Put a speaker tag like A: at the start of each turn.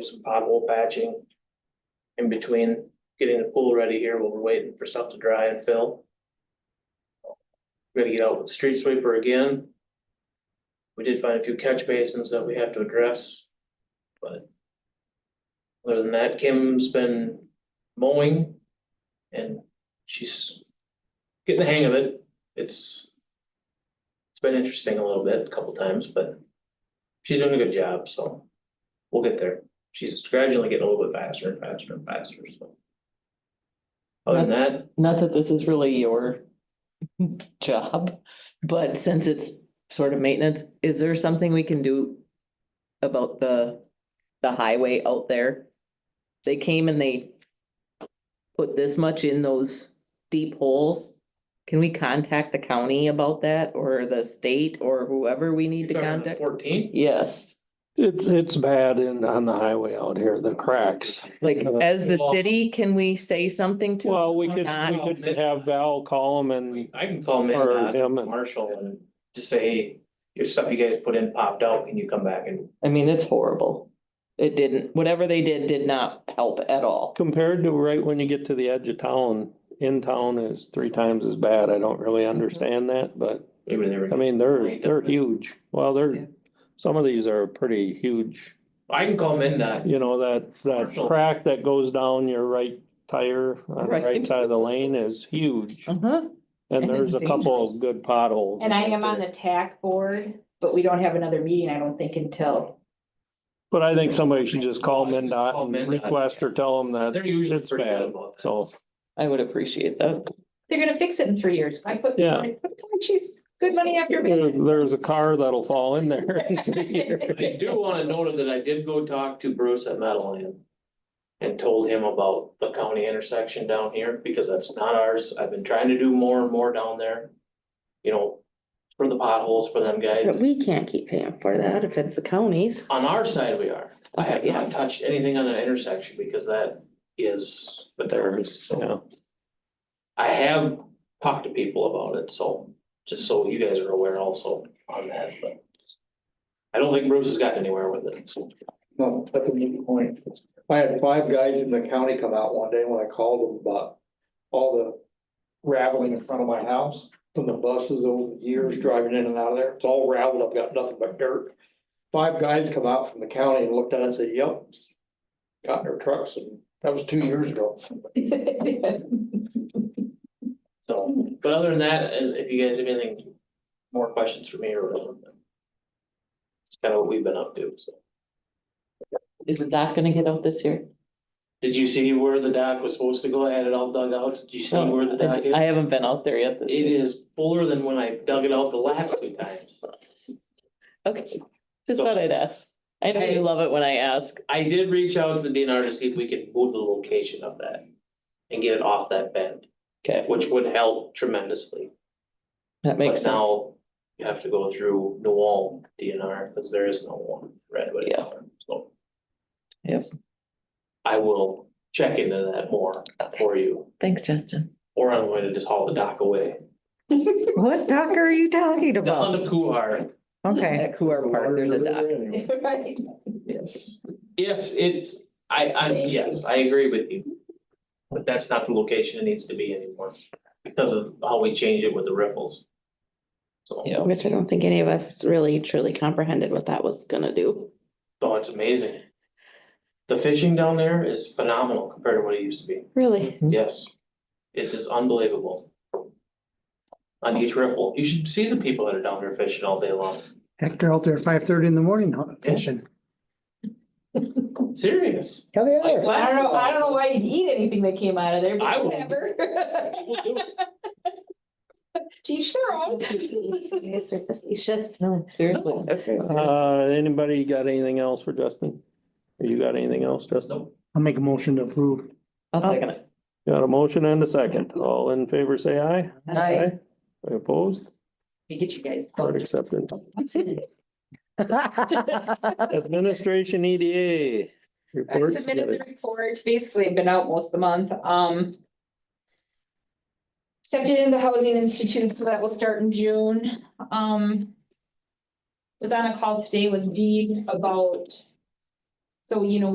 A: some pothole patching. In between getting the pool ready here while we're waiting for stuff to dry and fill. Gonna get out with the street sweeper again. We did find a few catch basins that we have to address. But. Other than that, Kim's been mowing. And she's getting the hang of it. It's. It's been interesting a little bit, a couple times, but she's doing a good job, so we'll get there. She's gradually getting a little bit faster and faster and faster, so. Other than that,
B: Not that this is really your job, but since it's sort of maintenance, is there something we can do about the, the highway out there? They came and they put this much in those deep holes. Can we contact the county about that or the state or whoever we need
A: you're
B: to
A: talking about the
B: contact?
A: fourteen,
B: Yes,
C: It's, it's bad in, on the highway out here, the cracks.
B: like
C: Uh,
B: as the
A: Well-
B: city, can we say something to?
C: Well, we
B: or
C: could,
B: not?
C: we could have Val call him and,
A: We- I can call
C: or
A: Mid,
C: him and,
A: Marshall and just say, hey, your stuff you guys put in popped out, can you come back and
B: I mean, it's horrible. It didn't, whatever they did, did not help at all.
C: compared to right when you get to the edge of town, in town is three times as bad. I don't really understand that, but
A: maybe they were.
C: I mean, they're, they're huge. Well,
B: Yeah.
C: they're, some of these are pretty huge.
A: I can call uh, Midnight.
C: You know, that, that
A: Commercial.
C: crack that goes down your right tire on the
B: Right.
C: right side of the lane is huge.
B: Uh-huh.
C: And
B: And
C: there's a
B: it's
C: couple of
B: dangerous.
C: good potholes.
D: And I am
C: right
D: on
C: there.
D: the TAC board, but we don't have another meeting, I don't think, until,
C: But I think somebody should just call
A: Just call
C: MinDOT and
A: MnDOT.
C: request or tell them that,
A: They're usually
C: It's
A: pretty good
C: bad.
A: about that.
C: so,
B: I would appreciate that.
D: they're gonna fix it in three years. I put,
C: Yeah.
D: I put, she's good money after
C: there-
D: me.
C: there's a car that'll fall in there in three years.
A: I do wanna note that I did go talk to Bruce at Meadowland. And told him about the county intersection down here, because that's not ours, I've been trying to do more and more down there. You know, for the potholes for them guys,
E: But we can't keep paying for that if it's the counties.
A: on our side we are, I have
E: Okay, yeah.
A: not touched anything on an intersection, because that is. But
C: There's, yeah.
A: I have talked to people about it, so, just so you guys are aware also on that, but. I don't think Bruce has gotten anywhere with it, so.
F: No, that's a neat point. I had five guys in the county come out one day when I called them about all the raveling in front of my house from the buses over the years driving in and out of there. It's all raveled. I've got nothing but dirt. Five guys come out from the county and looked at it and said, yep. Got in their trucks and that was two years ago.
A: So, but other than that, and if you guys have anything, more questions for me or whatever. then It's kind of what we've been up to, so.
B: Is the dock gonna get out this year?
A: Did you see where the dock was supposed to go? I had it all dug out. Did you see where the dock
B: I
A: is?
B: haven't been out there yet. this
A: It
B: year.
A: is fuller than when I dug it out the last two times.
B: Okay, just thought I'd ask. I know
A: Hey.
B: you love it when I ask.
A: I did reach out to the DNR to see if we could move the location of that and get it off that bend,
B: Okay,
A: which would help tremendously.
B: that makes
A: But
B: sense.
A: now you have to go through Newell DNR because there is no one Redwood.
B: Yeah.
A: So.
B: Yep.
A: I will check into that more for you,
B: Thanks, Justin.
A: or I'm going to just haul the dock away.
E: What dock are you talking
A: Down to Kuhar.
E: Okay.
B: At Cougar Park, there's a dock.
D: Right.
A: Yes. Yes, it, I, I, yes, I agree with you. But that's not the location it needs to be anymore because of how we changed it with the ripples. So,
B: Yeah.
E: Which I don't think any of us really truly comprehended what that was gonna do.
A: so it's amazing. The fishing down there is phenomenal compared to what it used to be.
E: Really?
A: Yes, it is unbelievable. On each riffle, you should see the people that are down there fishing all day long,
G: Hector out there at five thirty in the morning huh,
A: Yeah.
G: fishing.
A: serious.
G: Yeah, they
A: Like
G: are.
D: I
A: last
D: don't know, I
A: night.
D: don't know why you'd eat anything that came out of there,
A: I
D: but
A: would.
D: whatever.
A: We'll do it.
D: Gee, sure.
E: Yes, or facetious.
B: No, seriously.
E: Okay.
C: Uh, anybody got anything else for Justin? You got anything else, Justin?
A: Nope.
G: I'll make a motion to approve.
B: I'll second it.
C: Got a motion and a second. All in favor, say aye. Aye. Opposed?
D: We Get you guys.
C: Or accepted. Administration EDA.
D: I
C: reports.
D: submitted the report, basically I've been out most of the month, um. Accepted in the Housing Institute, so that will start in June, um. Was on a call today with Dean about. So, you know,